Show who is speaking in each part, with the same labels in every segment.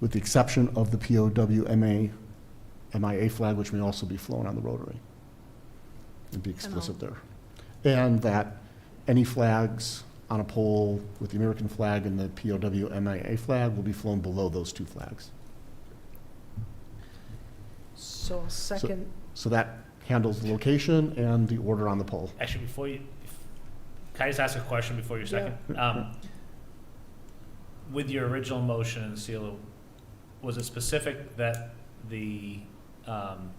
Speaker 1: with the exception of the POWMA, MIA flag, which may also be flown on the Rotary. And be explicit there. And that any flags on a pole with the American flag and the POWMIA flag will be flown below those two flags.
Speaker 2: So I'll second,
Speaker 1: So that handles the location and the order on the pole.
Speaker 3: Actually, before you, if- can I just ask a question before your second? Um, With your original motion and seal, was it specific that the, um,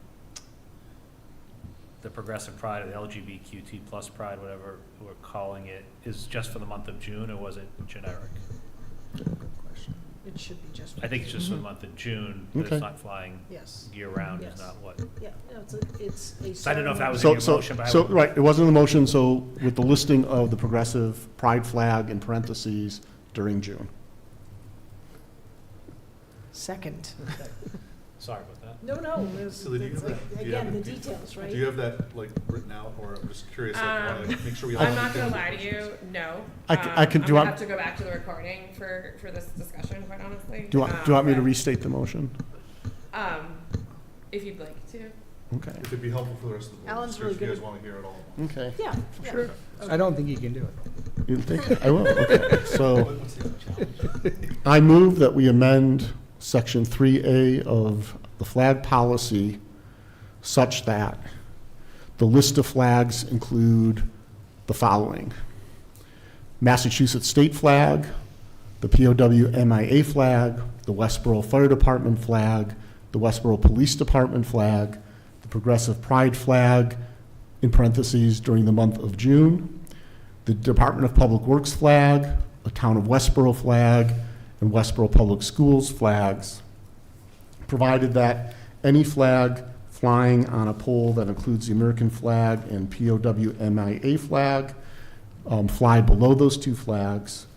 Speaker 3: the Progressive Pride, or the LGBTQT plus Pride, whatever we're calling it, is just for the month of June, or was it generic?
Speaker 2: it should be just.
Speaker 3: I think it's just for the month of June, that
Speaker 1: Okay.
Speaker 3: it's not flying
Speaker 2: Yes,
Speaker 3: year-round is
Speaker 2: Yes.
Speaker 3: not what.
Speaker 2: yeah, no, it's a, it's a.
Speaker 3: So I don't know if that was in
Speaker 1: So,
Speaker 3: your
Speaker 1: so,
Speaker 3: motion, but I
Speaker 1: so,
Speaker 3: would-
Speaker 1: right, it wasn't in the motion, so with the listing of the progressive pride flag in parentheses during June.
Speaker 2: Second.
Speaker 3: Sorry about that.
Speaker 2: No, no, it's,
Speaker 4: So then you
Speaker 2: it's
Speaker 4: have
Speaker 2: like,
Speaker 4: that- do you
Speaker 2: again,
Speaker 4: have
Speaker 2: the
Speaker 4: it-
Speaker 2: details,
Speaker 4: Do you
Speaker 2: right?
Speaker 4: have that, like, written out, or I'm just curious, like, I wanna
Speaker 5: Um,
Speaker 4: make sure we. all
Speaker 5: I'm not gonna
Speaker 4: understand
Speaker 5: lie
Speaker 4: the
Speaker 5: to you, no.
Speaker 1: I c- I
Speaker 5: Um,
Speaker 1: can-
Speaker 5: I'm
Speaker 1: do you
Speaker 5: gonna
Speaker 1: want-
Speaker 5: have to go back to the recording for, for this discussion, quite honestly.
Speaker 1: Do you want, do you want me to
Speaker 5: Um,
Speaker 1: restate the motion?
Speaker 5: Um, if you'd like to.
Speaker 1: Okay.
Speaker 4: If it'd be helpful for the rest of the board.
Speaker 2: Alan's
Speaker 4: just
Speaker 2: really
Speaker 4: If you
Speaker 2: good
Speaker 4: guys
Speaker 2: at-
Speaker 4: wanna hear it all. at once.
Speaker 1: Okay.
Speaker 2: Yeah, yeah.
Speaker 4: Sure.
Speaker 6: I don't think you can do it.
Speaker 1: You think, I will, okay. So
Speaker 4: What's the other challenge?
Speaker 1: I move that we amend section three A of the flag policy such that the list of flags include the following. Massachusetts state flag, the POW MIA flag, the Westboro Fire Department flag, the Westboro Police Department flag, the Progressive Pride flag, in parentheses, during the month of June, the Department of Public Works flag, the Town of Westboro flag, and Westboro Public Schools flags, provided that any flag flying on a pole that includes the American flag and POW MIA flag um, fly below those two flags,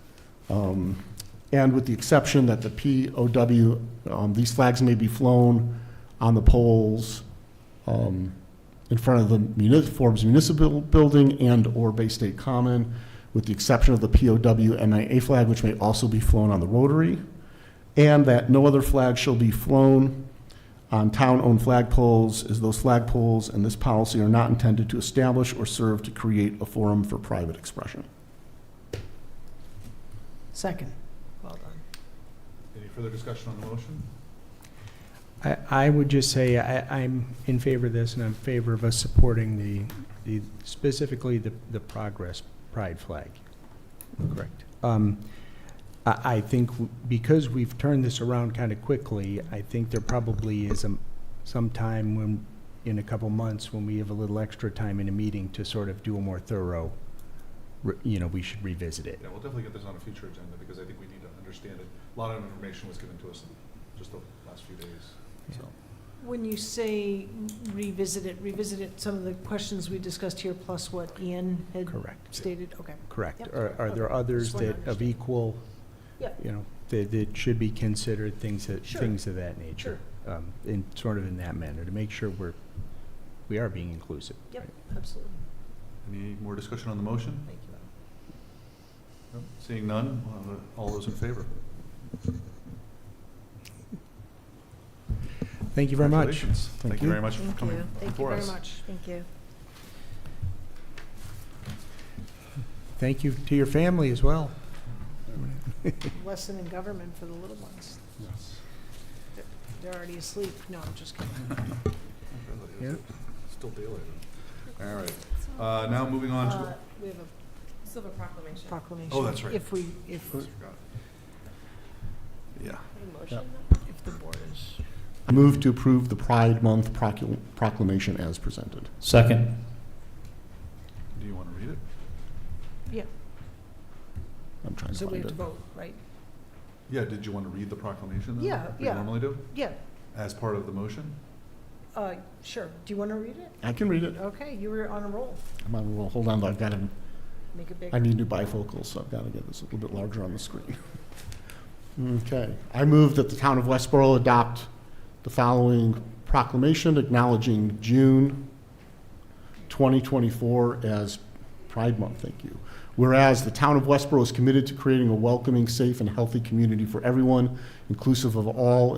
Speaker 1: um, and with the exception that the POW, um, these flags may be flown on the poles um, in front of the muni- Forbes Municipal Building and/or Bay State Common, with the exception of the POW MIA flag, which may also be flown on the Rotary, and that no other flag shall be flown on town-owned flagpoles, as those flagpoles and this policy are not intended to establish or serve to create a forum for private expression.
Speaker 2: Second. Well done.
Speaker 4: Any further discussion on the motion?
Speaker 6: I, I would just say I, I'm in favor of this and I'm in favor of us supporting the, the, specifically the, the progress pride flag. Correct. Um, I, I think w- because we've turned this around kind of quickly, I think there probably is some, some time when, in a couple months, when we have a little extra time in a meeting to sort of do a more thorough, re- you know, we should revisit it.
Speaker 4: Yeah, we'll definitely get this on a future agenda, because I think we need to understand it. A lot of information was given to us in just the last few days, so.
Speaker 2: When you say revisit it, revisit it, some of the questions we discussed here plus what Ian had
Speaker 6: Correct.
Speaker 2: stated, okay.
Speaker 6: Correct.
Speaker 2: Yep.
Speaker 6: Are, are there others
Speaker 2: Just wanna
Speaker 6: that of
Speaker 2: understand.
Speaker 6: equal,
Speaker 2: Yep.
Speaker 6: you know, that, that should be considered, things that,
Speaker 2: Sure.
Speaker 6: things of that nature? Um, in, sort of in that manner, to make sure we're, we are being inclusive.
Speaker 2: Yep.
Speaker 6: right?
Speaker 2: Absolutely.
Speaker 4: Any more discussion on the motion?
Speaker 2: Thank you.
Speaker 4: No? Seeing none, we'll have a- all those in favor?
Speaker 6: Thank you very much.
Speaker 4: Congratulations. Thank you
Speaker 1: you.
Speaker 4: very much for coming
Speaker 2: Thank you
Speaker 4: before
Speaker 2: very
Speaker 4: us.
Speaker 2: much. Thank you.
Speaker 6: Thank you to your family as well.
Speaker 2: Lesson in government for the little ones.
Speaker 4: Yes.
Speaker 2: They're already asleep. No, I'm just kidding.
Speaker 6: Yeah.
Speaker 4: Still daylight. All right, uh, now moving on
Speaker 2: Uh,
Speaker 4: to,
Speaker 2: We have a
Speaker 5: Still have a proclamation.
Speaker 2: proclamation.
Speaker 4: Oh, that's right.
Speaker 2: If we, if,
Speaker 4: yeah,
Speaker 5: Motion?
Speaker 2: if the board is.
Speaker 1: I move to approve the Pride Month procul- proclamation as presented.
Speaker 3: Second.
Speaker 4: do you want to read it?
Speaker 1: I'm trying to
Speaker 2: So we
Speaker 1: find
Speaker 2: have to
Speaker 1: it.
Speaker 2: vote, right?
Speaker 4: Yeah, did you want to read the proclamation then?
Speaker 2: Yeah,
Speaker 4: like we
Speaker 2: yeah.
Speaker 4: normally do,
Speaker 2: Yeah,
Speaker 4: as part of the motion?
Speaker 2: uh, sure. Do you want to read it?
Speaker 1: I can read it.
Speaker 2: Okay, you were on a roll.
Speaker 1: I'm on a roll. Hold on, though. I've got to,
Speaker 2: Make it big.
Speaker 1: I need new bifocals, so I've got to get this a little bit larger on the screen. Okay. I move that the town of Westboro adopt the following proclamation acknowledging June 2024 as Pride Month, thank you. Whereas the town of Westboro is committed to creating a welcoming, safe, and healthy community for everyone, inclusive of all